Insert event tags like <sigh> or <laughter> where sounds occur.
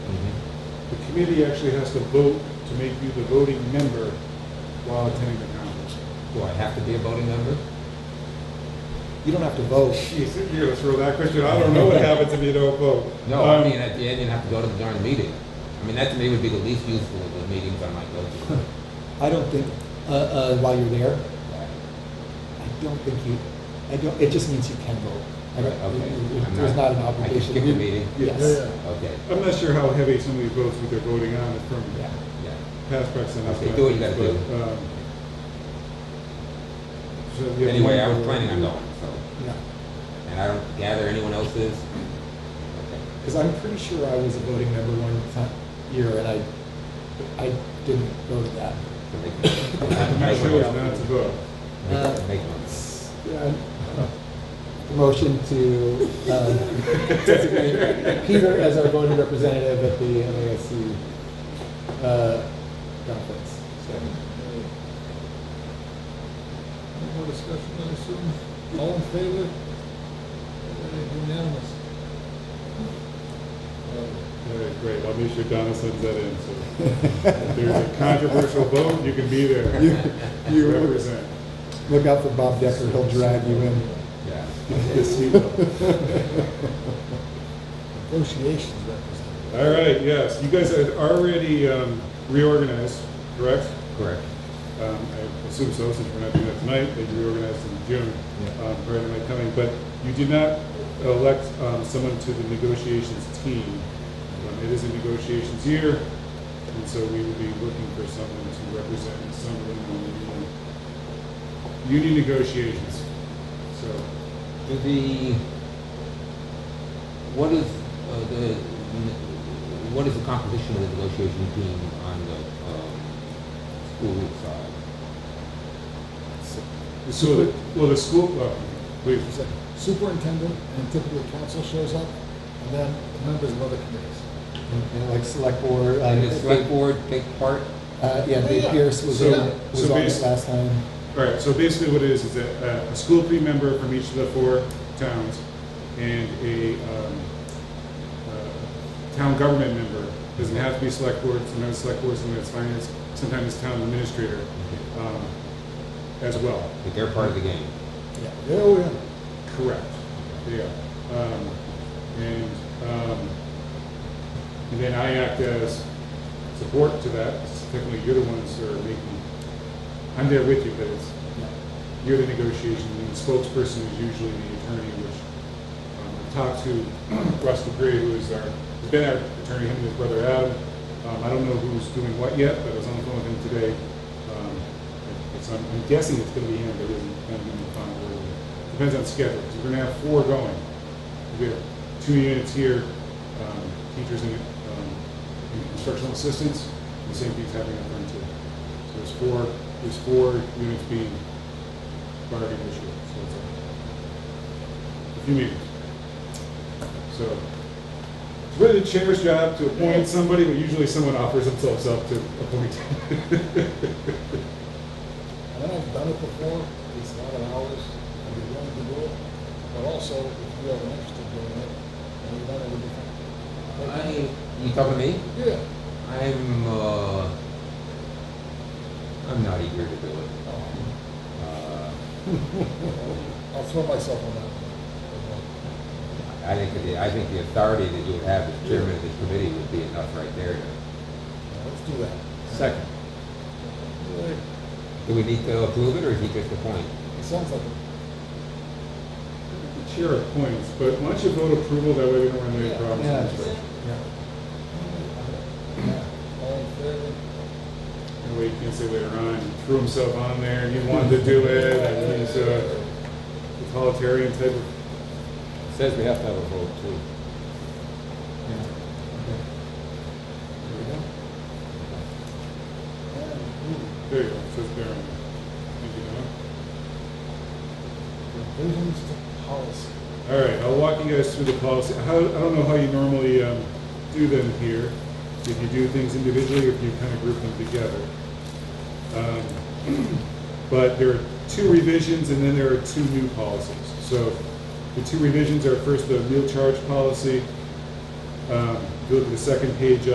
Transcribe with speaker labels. Speaker 1: committee actually has to vote to make you the voting member while attending the conference.
Speaker 2: Do I have to be a voting member? You don't have to vote.
Speaker 1: Geez, you're gonna throw that question, I don't know what happens if you don't vote.
Speaker 2: No, I
Speaker 1: Um,
Speaker 2: mean, at the end, you have to go to the darn meeting. I mean, that to me would be the least useful of the meetings I might go
Speaker 1: <laughs>
Speaker 2: to.
Speaker 3: I don't think, uh, uh, while you're there, I don't think you, I don't, it just means you can vote. I don't-
Speaker 2: Right, okay.
Speaker 3: it- it-
Speaker 2: I'm
Speaker 3: There's
Speaker 2: not-
Speaker 3: not an
Speaker 2: I can
Speaker 3: obligation.
Speaker 2: skip the meeting.
Speaker 1: Yeah,
Speaker 3: Yes.
Speaker 2: Okay,
Speaker 1: I'm not sure how heavy some of these votes that they're voting on is from
Speaker 3: Yeah.
Speaker 2: yeah.
Speaker 1: past precedent.
Speaker 2: Okay, do what you gotta do.
Speaker 1: but, um, so you have
Speaker 2: Anyway, I
Speaker 1: one
Speaker 2: was
Speaker 1: vote.
Speaker 2: planning on going, so,
Speaker 3: Yeah,
Speaker 2: and I don't gather anyone else is. Okay.
Speaker 3: because I'm pretty sure I was a voting member one time, year, and I, I didn't vote at that.
Speaker 2: So
Speaker 1: <laughs>
Speaker 2: they
Speaker 1: <coughs>
Speaker 2: can-
Speaker 1: I'm not sure it's not to vote.
Speaker 2: Make- make one.
Speaker 3: Yeah. <laughs> Motion to um, designate Peter as our voting representative at the MASC uh, conference.
Speaker 2: Second.
Speaker 4: Any more discussion, I assume? All in favor? Uh, Unanimous? Uh,
Speaker 1: All right, great, I'll make sure Donna sends that in, so if there's a controversial vote, you can be there.
Speaker 3: <laughs> You- you-
Speaker 1: Represent.
Speaker 3: Look out for Bob Decker, he'll drag you in.
Speaker 1: <laughs>
Speaker 2: Yeah.
Speaker 1: Yes, you will.
Speaker 4: Negotiations representative.
Speaker 1: All right, yes, you guys had already um, reorganized, correct?
Speaker 2: Correct.
Speaker 1: Um, I assume so, since we're not doing that tonight, they reorganized in June,
Speaker 2: Yeah.
Speaker 1: um, prior to my coming, but you did not elect um, someone to the negotiations team. Um, It is a negotiations year, and so we will be looking for someone to represent Summerlin on the union, union negotiations. So,
Speaker 2: Do the, what is, uh, the, what is the composition of the negotiation team on the, um, school side?
Speaker 1: so, the- well, the school, well, please,
Speaker 4: Is that Superintendent and typically council shows up, and then members of other committees.
Speaker 3: And like select board, uh,
Speaker 2: And the select board take part?
Speaker 3: uh, yeah, Dave Pierce was
Speaker 1: So-
Speaker 3: on, was
Speaker 1: so
Speaker 3: on
Speaker 1: based-
Speaker 3: it last time.
Speaker 1: All right, so basically what it is, is that uh, a school committee member from each of the four towns and a um, uh, town government member, doesn't have to be select board, sometimes select board, sometimes finance, sometimes town administrator um, as well.
Speaker 2: Like they're part of the game?
Speaker 4: Yeah, oh, yeah.
Speaker 1: Correct. Yeah. Um, and, um, and then I act as support to that. Technically, you're the ones that are making, I'm there with you, but it's, you're the negotiation, and the spokesperson is usually the attorney, which um, I talked to <clears throat> Russ dupree who is our, has been our attorney, him and his brother Adam. Um, I don't know who's doing what yet, but I was on the phone with him today. Um, it's- I'm I'm guessing it's gonna be him, but it isn't gonna be the final word. Depends on schedule, because we're gonna have four going. We have two units here, um, teachers and um, and instructional assistants, and the same thing's happening up front too. So there's four, there's four units being bargaining issue, so it's a, a few meetings. So, it's really the chair's job to appoint somebody, but usually someone offers themselves up to appoint. <laughs>
Speaker 4: And then I've done it before, it's not an hours, I'd be willing to do it, but also, if you have an interest in doing it, and you've done it with your.
Speaker 2: I, you talking to me?
Speaker 4: Yeah.
Speaker 2: I'm, uh, I'm not eager to do it.
Speaker 4: Oh.
Speaker 2: Uh,
Speaker 4: I'll throw myself on that. one.
Speaker 2: I think, that the- I think the authority that you would have as chairman of this committee would be enough right there. to-
Speaker 4: Yeah, Let's do that.
Speaker 3: Second.
Speaker 4: Really,
Speaker 2: Do we need to approve it, or is he just appointing?
Speaker 4: It sounds like, it.
Speaker 1: The chair appoints, but why don't you vote approval, that way we don't run into any
Speaker 3: Yeah.
Speaker 1: problems.
Speaker 4: all in favor?
Speaker 1: And we can say later on, he threw himself on there, and he wanted to do it, and he's a totalitarian type of.
Speaker 2: Says we have to have a vote, too.
Speaker 4: And
Speaker 1: There you go, it says Barron. Thank you, Donna.
Speaker 4: who? Revisions to policy.
Speaker 1: All right, I'll walk you guys through the policy. How, I don't know how you normally um, do them here, if you do things individually or if you kind of group them together. Um, <clears throat> But there are two revisions and then there are two new policies. So the two revisions are first the meal charge policy. Um, If you look at the second page